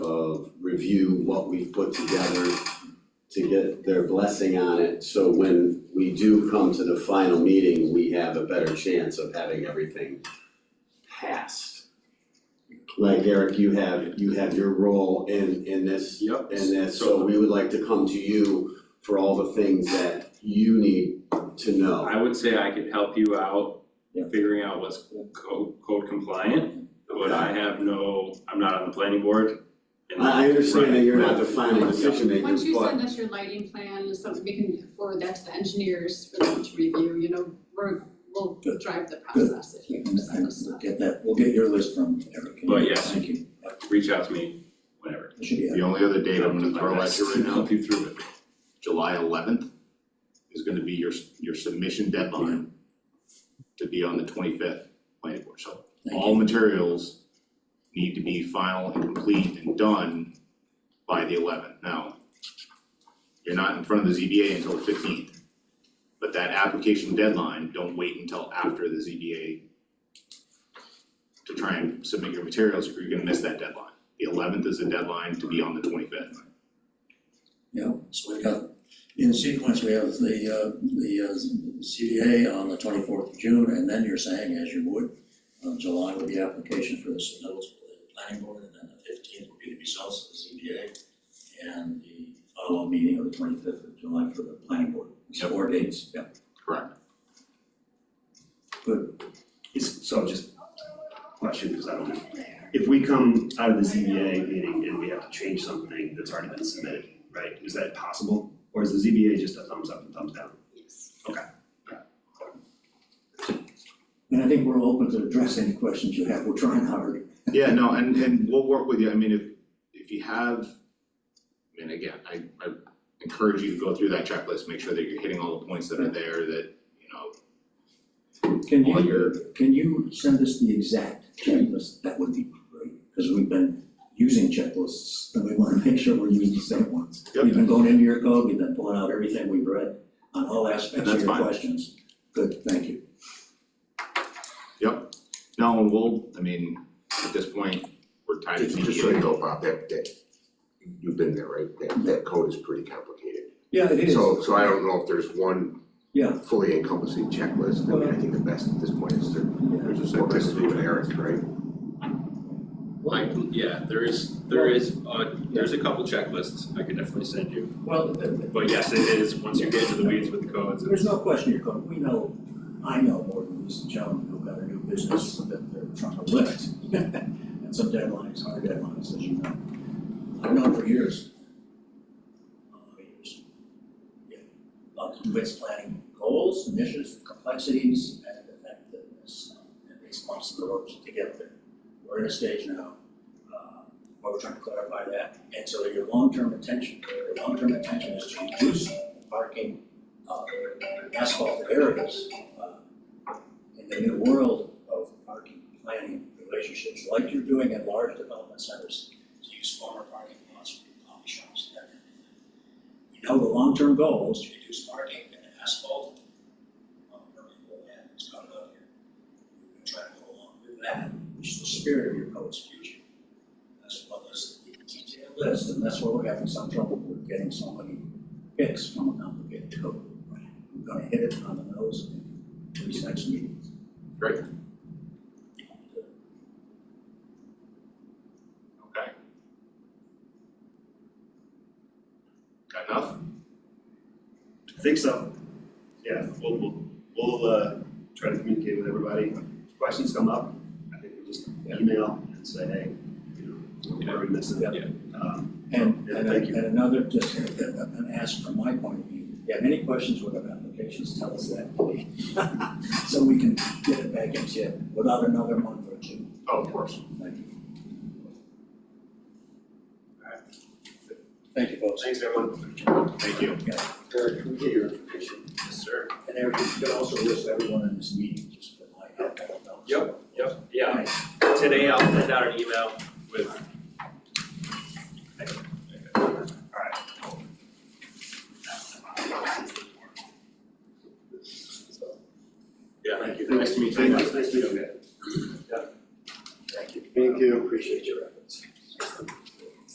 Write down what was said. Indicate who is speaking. Speaker 1: review what we've put together to get their blessing on it, so when we do come to the final meeting, we have a better chance of having everything passed. Like Eric, you have, you have your role in, in this
Speaker 2: Yep.
Speaker 1: and that, so we would like to come to you for all the things that you need to know.
Speaker 2: I would say I could help you out
Speaker 3: Yeah.
Speaker 2: figuring out what's code code compliant,
Speaker 1: Mm-hmm.
Speaker 2: but I have no, I'm not on the planning board. and-
Speaker 1: I I understand that you're not the
Speaker 2: Right,
Speaker 1: final decision maker,
Speaker 4: Once you
Speaker 1: but,
Speaker 4: send us your lighting plan, it's something we can forward that to the engineers for them to review, you know, we're, we'll drive the process if you send us
Speaker 3: We'll
Speaker 4: stuff.
Speaker 3: Get that, we'll get your list from Eric.
Speaker 2: But yes.
Speaker 3: Thank you.
Speaker 2: right. Reach out to me whenever.
Speaker 3: It should be,
Speaker 5: The only other date I'm gonna throw at you right now,
Speaker 2: Help you through it.
Speaker 5: July eleventh is gonna be your, your submission deadline to be on the twenty-fifth planning board, so
Speaker 3: thank
Speaker 5: all
Speaker 3: you.
Speaker 5: materials need to be final and complete and done by the eleventh. Now, you're not in front of the ZBA until the fifteenth, but that application deadline, don't wait until after the ZBA to try and submit your materials, or you're gonna miss that deadline. The eleventh is the deadline to be on the twenty-fifth.
Speaker 3: Yeah, so we got, in sequence, we have the, uh, the uh, CDA on the twenty-fourth of June, and then you're saying, as you would, uh, July with the application for the submittals to the planning board, and then the fifteenth will be the results of the CDA, and the follow meeting of the twenty-fifth of July for the planning board. It's Four dates, yeah.
Speaker 5: Correct.
Speaker 3: Good,
Speaker 6: Is, so just question, because I don't know. If we come out of the ZBA meeting and we have to change something that's already been submitted, right, is that possible? Or is the ZBA just a thumbs up and thumbs down?
Speaker 4: Yes.
Speaker 3: and I think we're open to address any questions you have, we're trying hard.
Speaker 5: Yeah, no, and and we'll work with you, I mean, if if you have, I mean, again, I I encourage you to go through that checklist, make sure that you're hitting all the points that are there, that, you know,
Speaker 3: Can
Speaker 5: all your-
Speaker 3: you, can you send us the exact checklist? That would be great, because we've been using checklists, and we wanna make sure we're using the same ones.
Speaker 5: Yep.
Speaker 3: We've been going into your code, we've been pulling out everything we've read on all aspects of
Speaker 5: That's
Speaker 3: your
Speaker 5: fine.
Speaker 3: questions. Good, thank you.
Speaker 5: no, and we'll, I mean, at this point, we're tied to
Speaker 7: Just, just so
Speaker 5: ZBA.
Speaker 7: you know, Bob, that, that, you've been there, right? That, that code is pretty complicated.
Speaker 3: Yeah, it is.
Speaker 7: So, so I don't know if there's one
Speaker 3: Yeah.
Speaker 7: fully encompassing checklist. I mean, I think the best at this point is to
Speaker 3: Yeah.
Speaker 5: There's a
Speaker 7: work this
Speaker 5: checklist.
Speaker 7: through with Eric, right?
Speaker 8: Like, yeah, there is, there is, uh, there's a couple checklists I could definitely send you,
Speaker 3: Well, th- th-
Speaker 8: but yes, it is, once you get into the weeds with the codes,
Speaker 3: there's
Speaker 8: it's,
Speaker 3: no question you're going, we know, I know more than these gentlemen who've got a new business that they're trying to lift. And some deadlines are deadlines, as you know. I've known for years. Uh, years. Yeah, Lots of ways planning goals, initiatives, complexities, and effectiveness, uh, and response to the roads to get there. We're in a stage now, uh, where we're trying to clarify that, and so your long-term intention, your long-term intention is to reduce parking uh, asphalt areas. uh, In the new world of parking planning relationships, like you're doing in large development centers, to use former parking lots for coffee shops and everything. We know the long-term goal is to reduce parking and asphalt uh, permeable land that's coming up here. We're gonna try to go along with that, which is the spirit of your code's future. As well as the detailed list, and that's where we're having some trouble with getting so many picks from a complicated code. I'm gonna hit it on the nose in these next meetings.
Speaker 5: Great. Okay. Got enough?
Speaker 6: I think so. Yeah, we'll, we'll, we'll, uh, try to communicate with everybody. If Questions come up, I think we just email and say, hey, you know, what are we missing?
Speaker 3: Yeah.
Speaker 6: Um,
Speaker 3: And,
Speaker 6: Yeah,
Speaker 3: and
Speaker 6: thank you.
Speaker 3: and another, just an ask from my point of view, if you have any questions with our applications, tell us that. please. So we can get it back into you without another month or two.
Speaker 5: Oh, of course.
Speaker 3: Thank you. Thank you, folks.
Speaker 6: thanks, everyone.
Speaker 5: Thank you.
Speaker 3: Eric, can we get your information?
Speaker 8: yes, sir.
Speaker 3: And Eric, you can also list everyone in this meeting, just for my, I don't know.
Speaker 8: Yep, Yep, yeah, today I'll send out an email with. Yeah,
Speaker 6: Thank you.
Speaker 8: nice to meet you.
Speaker 6: Thank you. Nice to meet you.
Speaker 1: thank you.
Speaker 6: Appreciate you.